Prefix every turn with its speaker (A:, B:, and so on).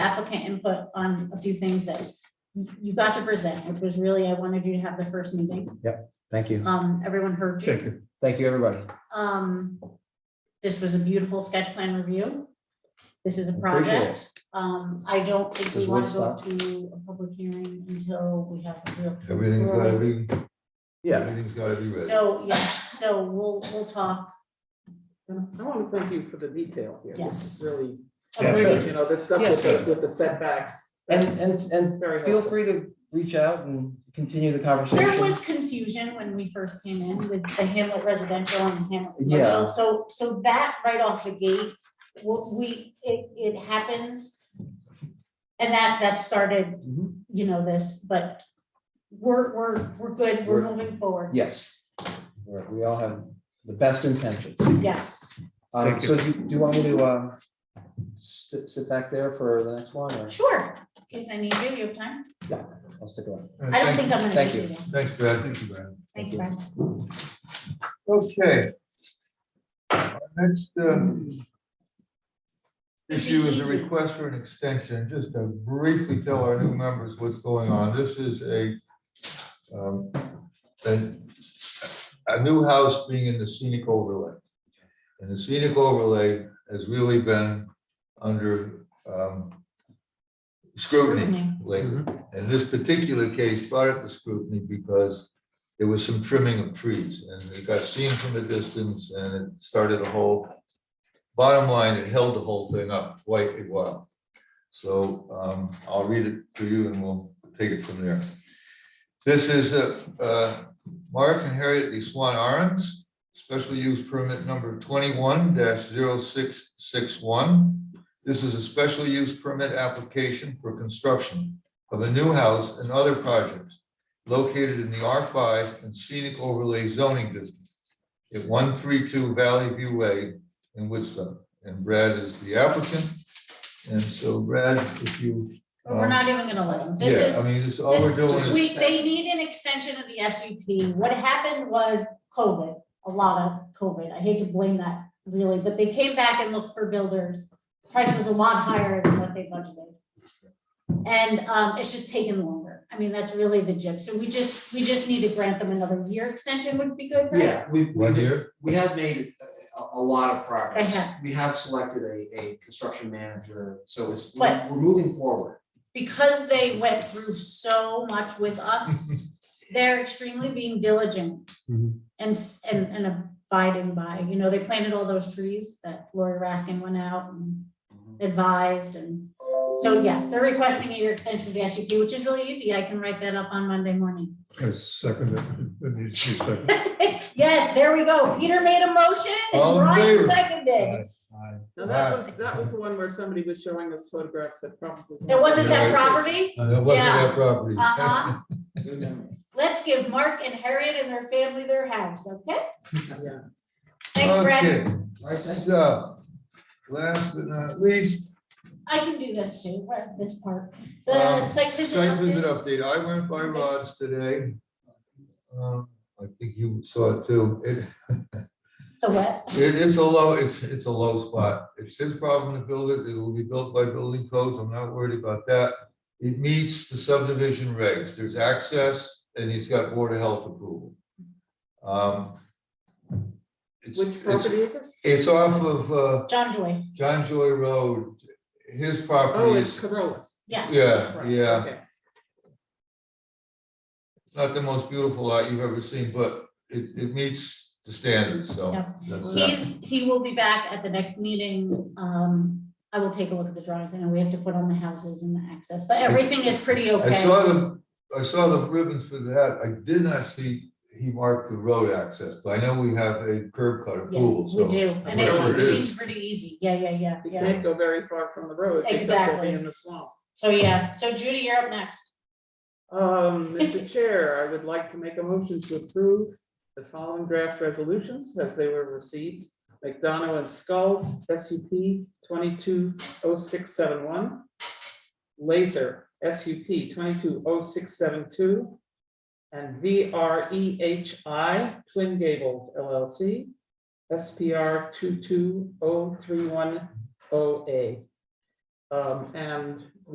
A: applicant input on a few things that you got to present, which was really, I wanted you to have the first meeting.
B: Thank you.
A: Um, everyone heard you.
C: Thank you.
B: Thank you, everybody.
A: Um, this was a beautiful sketch plan review. This is a
B: Appreciate it.
A: project. Um, I don't think we
B: Does
A: want to go
B: Woodstock-
A: to a public hearing until we have a real.
D: Everything's gotta be,
B: Yeah,
D: everything's gotta be ready.
A: So, yes, so we'll, we'll talk.
E: I want to thank you for the detail here. This is Really,
C: Yeah, sure.
E: you know, this stuff with the, with the setbacks.
B: and,
E: that's
B: and, and
E: very
B: feel
E: helpful.
B: free to reach out and continue the
A: There
B: conversation.
A: was confusion when we first came in with the Hamlet residential and Hamlet
B: Yeah.
A: commercial, so, so that right off the gate, what we, it, it happens. And that, that started,
B: Mhm.
A: you know, this, but we're, we're, we're good, we're
B: We're-
A: moving forward,
B: Yes. We're- We all have the best intentions.
A: yes,
B: Um,
C: Thank
B: so do you, do you want me to, um, sit, sit back there for the next one or
A: sure, in case I need you, you have time,
B: I'll stick around?
A: I don't think I'm gonna.
B: Thank
A: need
B: you.
A: you.
D: Thanks, Brad. Thank you, Brad.
A: Thanks, Brian.
D: Okay. Our Next, uh,
A: Should be
D: issue is a
A: easy.
D: request for an extension, just to briefly tell our new members what's going on. This is a, um, a, a new house being in the scenic overlay. And the scenic overlay has really been under, um, scrutiny
A: Scrutiny.
D: lately. In this particular case, brought up the scrutiny because there was some trimming of trees and it got seen from a distance and it started a whole. Bottom line, it held the whole thing up quite a while. So um, I'll read it to you and we'll take it from there. This is uh, uh, Mark and Harriet Lee Swan Arons, special use permit number twenty-one 661 This is a special use permit application for construction of a new house and other projects located in the R5 and scenic overlay zoning district at 132 Valley View Way in Woodstock. And Brad is the applicant. And so Brad, if you.
A: But we're
D: um,
A: not even gonna let them, this
D: yeah,
A: is.
D: I mean, it's all we're doing
A: This-
D: is.
A: We, they need an extension of the SUP. What happened was COVID, a lot of COVID. I hate to blame that really, but they came back and looked for builders. Price was a lot higher than what they budgeted. And um, it's just taken longer. I mean, that's really the gist. So we just, we just need to grant them another year extension would be good, right?
F: Yeah, we,
D: One
F: we,
D: year,
F: we have made a, a lot of progress.
A: They have.
F: We have selected a, a construction manager, so it's, we're
A: But-
F: we're moving forward.
A: Because they went through so much with us, they're extremely being diligent
D: Mm-hmm.
C: Mhm.
A: and, s- and, and abiding by, you know, they planted all those trees that Lori Raskin went out and
B: Mm-hmm.
A: advised and so, yeah, they're requesting a year extension of the SUP, which is really easy. I can write that up on Monday morning.
C: I second it. It needs to be seconded.
A: Yes, there we go. Peter made a motion and
D: All in
A: Brian
D: favor?
A: seconded.
E: Now, that
D: Wow.
E: was, that was the one where somebody was showing us photographs that probably.
A: There wasn't that
D: Yeah.
A: property.
D: and it wasn't
A: Yeah.
D: that property.
A: Uh-huh.
F: Good memory.
A: Let's give Mark and Harriet and their family their house, okay?
E: Yeah.
A: Thanks, Brad.
D: Okay, So, uh, last but not least,
A: I can do this too, right, this part.
D: Um,
A: The site visit
D: site visit
A: update.
D: update. I went by Rod's today. Um, I think you saw it too. It,
A: The what?
D: It is a low, it's, it's a low spot. It's his problem to build it. It'll be built by building codes. I'm not worried about that. It meets the subdivision regs. There's access and he's got Board of Health approval. Um, it's-
E: Which
D: it's-
E: property is it?
D: It's off of uh,
A: John Joy,
D: John Joy Road. His
E: Oh,
D: property
E: it's
D: is,
E: Corollas.
A: yeah.
D: yeah,
E: Right,
D: yeah.
E: okay.
D: It's Not the most beautiful lot you've ever seen, but it, it meets the standards, so.
A: Yeah.
D: that's that.
A: He's, he will be back at the next meeting. Um, I will take a look at the drawings. I know we have to put on the houses and the access, but everything is pretty
D: I
A: okay.
D: saw the, I saw the ribbons for that. I did not see he marked the road access, but I know we have a curb cut
A: Yeah,
D: approval,
A: we
D: so.
A: do. And
D: whatever
A: it
D: it
A: seems
D: is.
A: pretty easy. Yeah, yeah, yeah,
E: You
A: yeah.
E: can't go very far from the road. because they'll be
A: Exactly.
E: In the swamp.
A: So, yeah. So Judy, you're up next.
E: Um, Mr. Chair, I would like to make a motion to approve the following draft resolutions as they were received. McDonough and Skulls, SUP twenty-two oh six seven one. Laser, SUP twenty-two oh six seven two. And VREHI Twin Gables LLC, SPR two two oh three one oh A. Um, and